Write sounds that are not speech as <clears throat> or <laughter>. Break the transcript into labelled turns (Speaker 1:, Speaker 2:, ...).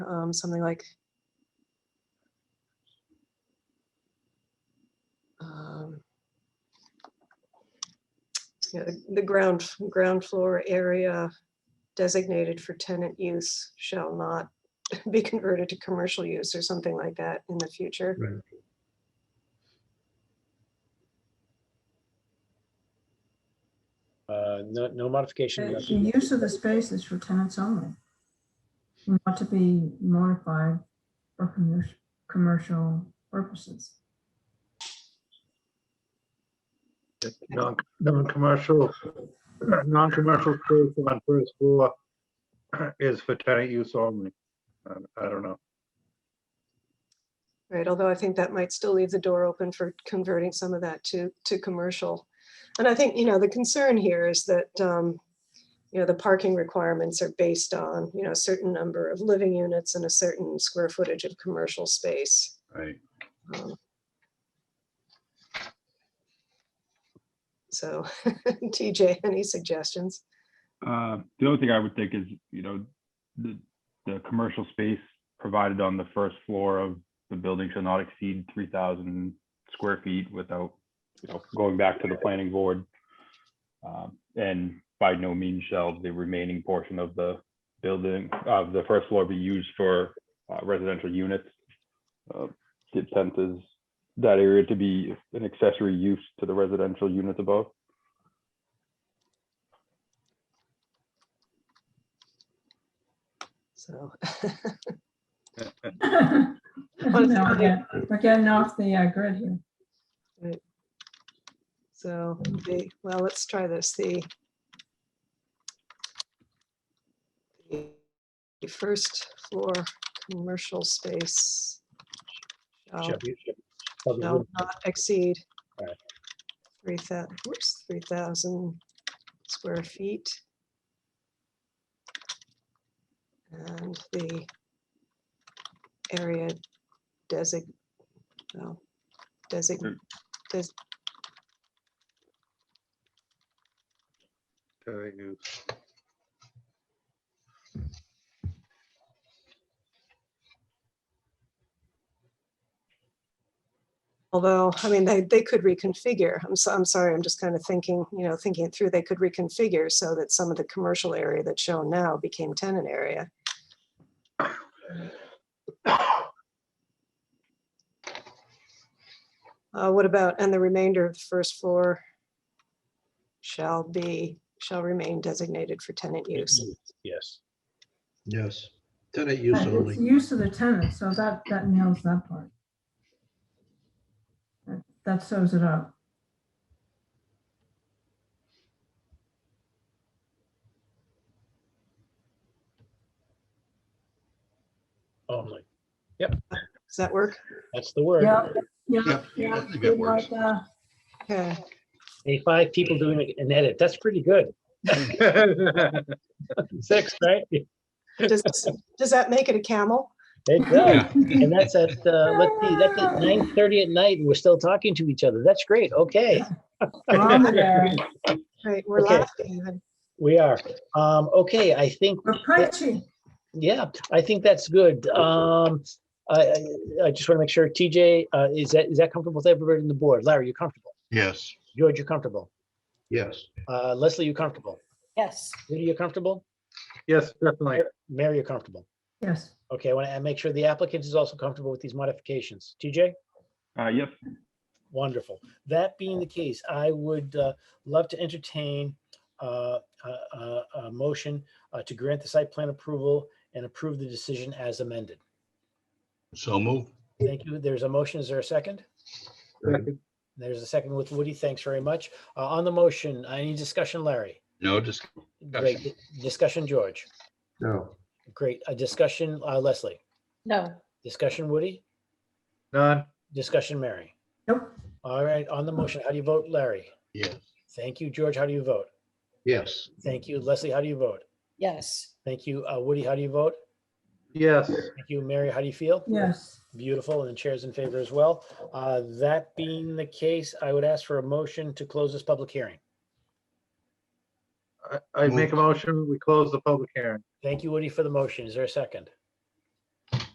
Speaker 1: um, something like um, yeah, the- the ground, ground floor area designated for tenant use shall not <laughs> be converted to commercial use or something like that in the future.
Speaker 2: Right.
Speaker 3: Uh, no, no modification.
Speaker 4: The use of the space is for tenants only. Not to be modified for commercial, commercial purposes.
Speaker 2: Non- Non-commercial, <clears throat> non-commercial space on first floor <clears throat> is for tenant use only. I I don't know.
Speaker 1: Right, although I think that might still leave the door open for converting some of that to, to commercial. And I think, you know, the concern here is that, um, you know, the parking requirements are based on, you know, a certain number of living units and a certain square footage of commercial space.
Speaker 2: Right.
Speaker 1: Um, So, <laughs> TJ, any suggestions?
Speaker 5: Uh, The only thing I would think is, you know, the, the commercial space provided on the first floor of the building shall not exceed three thousand square feet without, you know, going back to the planning board. Um, And by no means shall the remaining portion of the building, of the first floor be used for uh, residential units. Uh, The intent is that area to be an accessory use to the residential units above.
Speaker 1: So,
Speaker 4: <laughs> No,
Speaker 1: okay.
Speaker 4: We're we're getting off the uh, grid here.
Speaker 1: so, the, well, let's try this, the the first floor commercial space shall
Speaker 3: Shall be- shall be-
Speaker 1: shall not exceed
Speaker 3: Alright.
Speaker 1: three thou, whoops, three thousand square feet. And the area desig, no, desig,
Speaker 5: Mm.
Speaker 1: des,
Speaker 2: Tenant use.
Speaker 1: Although, I mean, they, they could reconfigure. I'm so, I'm sorry, I'm just kind of thinking, you know, thinking it through, they could reconfigure so that some of the commercial area that's shown now became tenant area. Uh, what about, and the remainder of the first floor shall be, shall remain designated for tenant use.
Speaker 3: Yes.
Speaker 6: Yes, tenant use
Speaker 4: But It's the
Speaker 6: only.
Speaker 4: use of the tenant, so that, that nails that part. That- That sews it up.
Speaker 3: Only.
Speaker 1: Does that work?
Speaker 3: Oh, That's the word.
Speaker 4: Yeah, yeah,
Speaker 6: Yep,
Speaker 4: yeah.
Speaker 6: I think that
Speaker 4: good
Speaker 6: works.
Speaker 4: like that.
Speaker 1: Okay,
Speaker 3: Hey, five people doing an edit. That's pretty good.
Speaker 2: <laughs>
Speaker 3: Six, right?
Speaker 4: <laughs>
Speaker 1: does, does that make it a camel?
Speaker 3: It does. And that's at, uh, let's see, that's at nine thirty at night and we're still talking to each other. That's great. Okay,
Speaker 4: We're on the air.
Speaker 1: Right, we're
Speaker 3: Okay.
Speaker 1: laughing even.
Speaker 3: we are. Um, okay, I think
Speaker 4: We're preaching.
Speaker 3: Yeah, I think that's good. Um, I, I, I just want to make sure TJ, uh, is that, is that comfortable with everybody on the board? Larry, you comfortable?
Speaker 6: Yes,
Speaker 3: George, you comfortable?
Speaker 6: yes.
Speaker 3: Uh, Leslie, you comfortable?
Speaker 7: Yes.
Speaker 3: Judy, you comfortable?
Speaker 2: Yes, definitely.
Speaker 3: Mary, you comfortable?
Speaker 4: Yes.
Speaker 3: Okay, I want to make sure the applicant is also comfortable with these modifications. TJ?
Speaker 5: Uh, Yes,
Speaker 3: Wonderful. That being the case, I would uh, love to entertain uh, a, a, a motion uh, to grant the site plan approval and approve the decision as amended.
Speaker 6: So move.
Speaker 3: Thank you. There's a motion. Is there a second? There's a second with Woody. Thanks very much. Uh, on the motion, any discussion, Larry?
Speaker 6: No, just,
Speaker 3: Great. Di- Discussion, George?
Speaker 6: no.
Speaker 3: Great. A discussion, uh, Leslie?
Speaker 7: No.
Speaker 3: Discussion, Woody?
Speaker 2: None.
Speaker 3: Discussion, Mary?
Speaker 4: Nope.
Speaker 3: All right, on the motion, how do you vote, Larry?
Speaker 6: Yes,
Speaker 3: Thank you, George. How do you vote?
Speaker 6: yes.
Speaker 3: Thank you, Leslie. How do you vote?
Speaker 7: Yes.
Speaker 3: Thank you, uh, Woody. How do you vote?
Speaker 2: Yes.
Speaker 3: Thank you, Mary. How do you feel?
Speaker 4: Yes.
Speaker 3: Beautiful, and the chair's in favor as well. Uh, that being the case, I would ask for a motion to close this public hearing.
Speaker 2: I- I make a motion, we close the public hearing.
Speaker 3: Thank you, Woody, for the motion. Is there a second?